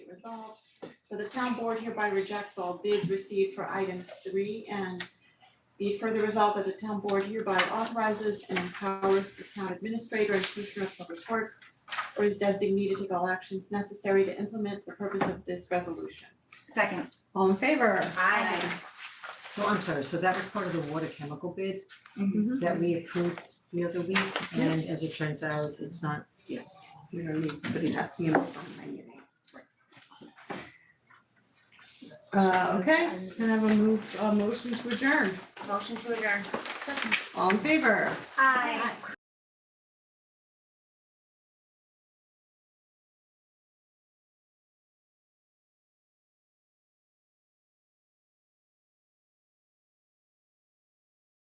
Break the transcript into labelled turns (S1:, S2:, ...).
S1: resolved. So the town board hereby rejects all bids received for item three and be further resolved that the town board hereby authorizes and empowers the town administrator and commissioner of public works or his designee to take all actions necessary to implement the purpose of this resolution.
S2: Second.
S1: All in favor?
S2: Aye.
S3: So I'm sorry, so that was part of the water chemical bid that we approved the other week, and as it turns out, it's not,
S1: We don't need, but it has to be in the front line, you know. Uh, okay, can I have a move, a motion to adjourn?
S2: Motion to adjourn.
S1: All in favor?
S2: Aye.